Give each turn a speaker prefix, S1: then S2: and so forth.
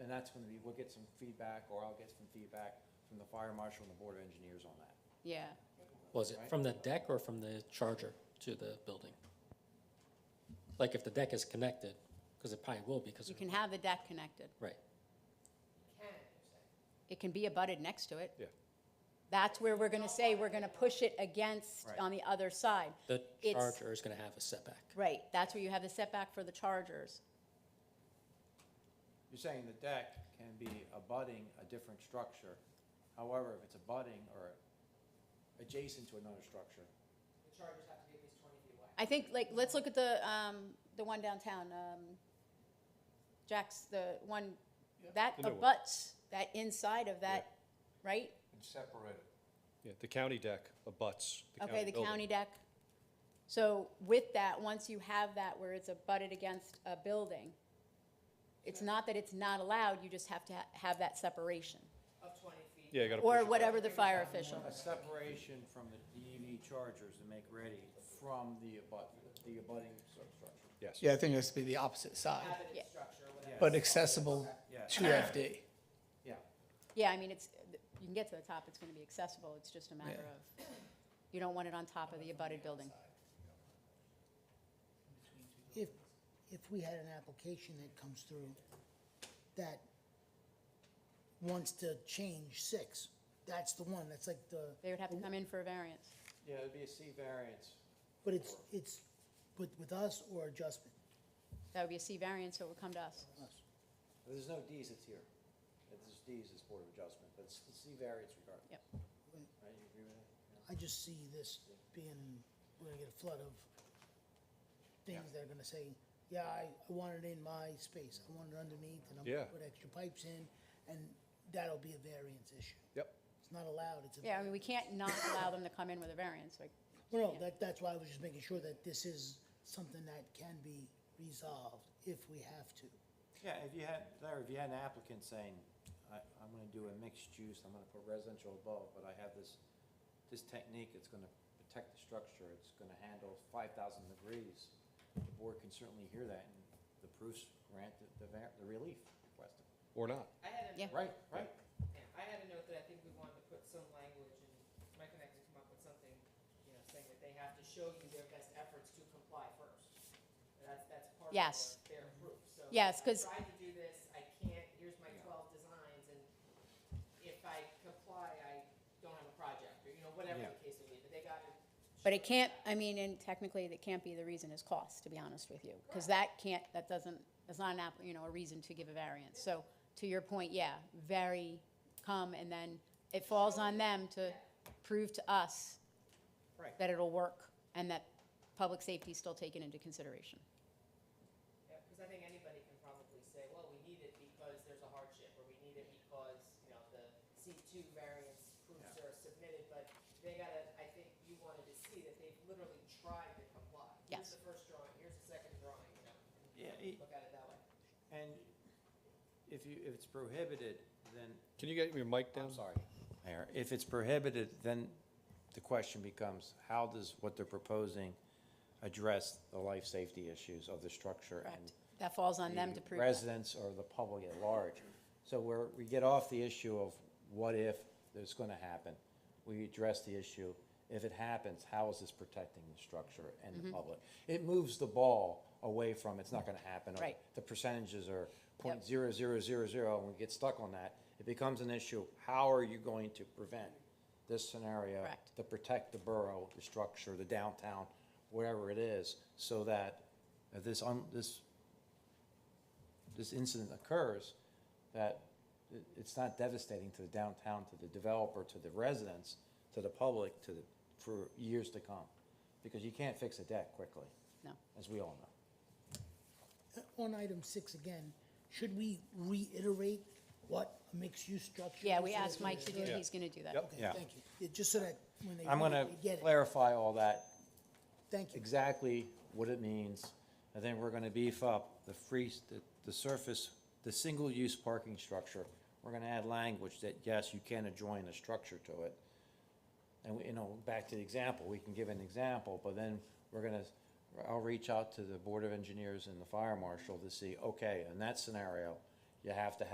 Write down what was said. S1: And that's gonna be, we'll get some feedback, or I'll get some feedback from the fire marshal and the board of engineers on that.
S2: Yeah,
S3: Was it
S1: Right.
S3: from the deck or from the charger to the building? Like if the deck is connected, because it probably will be, because.
S2: you can have the deck connected.
S3: Right,
S2: It can be abutted next to it.
S1: Yeah.
S2: That's where we're gonna say, we're gonna push it against
S1: Right.
S2: on the other side.
S3: the
S2: It's-
S3: charger is going to have a setback.
S2: Right, that's where you have the setback for the chargers.
S1: You're saying the deck can be abutting a different structure. However, if it's abutting or adjacent to another structure,
S2: I think, like, let's look at the, um, the one downtown, um, Jack's, the one, that
S4: The new one.
S2: abuts, that inside of that, right?
S1: and separate it.
S4: Yeah, the county deck abuts the county
S2: Okay, the
S4: building.
S2: county deck. So with that, once you have that where it's abutted against a building, it's not that it's not allowed, you just have to ha- have that separation.
S5: Of twenty feet.
S4: Yeah, you gotta push
S2: Or
S4: it back.
S2: whatever the fire official,
S1: A separation from the EV chargers to make ready from the abut, the abutting substructure.
S4: Yes.
S6: Yeah, I think it has to be the opposite side,
S2: Yeah.
S5: Cabinet structure, or whatever.
S6: but accessible
S1: Yes,
S6: to FD.
S1: yeah.
S2: yeah, I mean, it's, you can get to the top, it's gonna be accessible, it's just a matter of, you don't want it on top of the abutted building.
S7: If, if we had an application that comes through that wants to change six, that's the one, that's like the,
S2: They would have to come in for a variance.
S1: Yeah, it'd be a C variance.
S7: but it's, it's with, with us or adjustment?
S2: That would be a C variance, so it would come to us.
S7: Us.
S1: There's no Ds, it's here. If there's Ds, it's Board of Adjustment, but it's the C variance regardless.
S2: Yep.
S1: Right, you agree with that?
S7: I just see this being, we're gonna get a flood of things that are gonna say, yeah, I, I want it in my space, I want it underneath, and I'm gonna
S4: Yeah.
S7: put extra pipes in, and that'll be a variance issue.
S4: Yep.
S7: It's not allowed, it's a.
S2: Yeah, I mean, we can't not allow them to come in with a variance, like,
S7: Well, no, that, that's why I was just making sure that this is something that can be resolved if we have to.
S1: Yeah, if you had, Larry, if you had an applicant saying, I, I'm gonna do a mixed use, I'm gonna put residential above, but I have this, this technique, it's gonna protect the structure, it's gonna handle five thousand degrees. The board can certainly hear that and the proofs grant the, the var- the relief requested.
S4: Or not.
S5: I had a,
S2: Yeah.
S1: Right, right.
S5: yeah, I had a note that I think we wanted to put some language, and my connect to come up with something, you know, saying that they have to show you their best efforts to comply first. And That's, that's part of
S2: Yes.
S5: their their proof, so.
S2: Yes, 'cause-
S5: I tried to do this, I can't, here's my twelve designs, and if I comply, I don't have a project, or, you know, whatever
S1: Yeah.
S5: the case may be, but they got to.
S2: But it can't, I mean, and technically, that can't be the reason is cost, to be honest with you, because that can't, that doesn't, that's not an app, you know, a reason to give a variance. So to your point, yeah, very come, and then it falls on them to prove to us
S1: Right.
S2: that it'll work and that public safety is still taken into consideration.
S5: Yeah, because I think anybody can probably say, well, we need it because there's a hardship, or we need it because, you know, the C two variance proofs are submitted, but they gotta, I think you wanted to see that they've literally tried to comply.
S2: Yes.
S5: Here's the first drawing, here's the second drawing, you know,
S1: Yeah, it-
S5: look at it that way.
S1: and if you, if it's prohibited, then
S4: Can you get your mic down?
S1: I'm sorry, Mayor, if it's prohibited, then the question becomes, how does what they're proposing address the life safety issues of the structure and
S2: Correct. That falls on them to
S1: the
S2: prove that.
S1: residents or the public at large? So where we get off the issue of what if it's gonna happen, we address the issue, if it happens, how is this protecting the structure and
S2: Mm-hmm.
S1: the public? It moves the ball away from, it's not gonna happen. or
S2: Right.
S1: The percentages are
S2: Yep.
S1: point zero zero zero zero, and we get stuck on that, it becomes an issue, how are you going to prevent this scenario?
S2: Correct.
S1: To protect the borough, the structure, the downtown, whatever it is, so that if this, un- this, this incident occurs, that it- it's not devastating to the downtown, to the developer, to the residents, to the public, to the, for years to come. Because you can't fix a deck quickly,
S2: No.
S1: as we all know.
S7: Uh, On item six again, should we reiterate what a mixed-use structure is?
S2: Yeah, we
S7: so that
S2: asked
S7: they
S2: Mike to do,
S7: understand?
S2: he's gonna do that.
S4: Yep.
S1: Yeah.
S7: Okay, thank you. Yeah, Just so that when they
S1: I'm
S7: read
S1: gonna
S7: it, they get it.
S1: clarify all that,
S7: Thank you.
S1: exactly what it means, and then we're gonna beef up the free, the, the surface, the single-use parking structure. We're gonna add language that, yes, you can adjoin a structure to it. And, we- you know, back to the example, we can give an example, but then we're gonna, I'll reach out to the Board of Engineers and the Fire Marshal to see, okay, in that scenario, you have to have.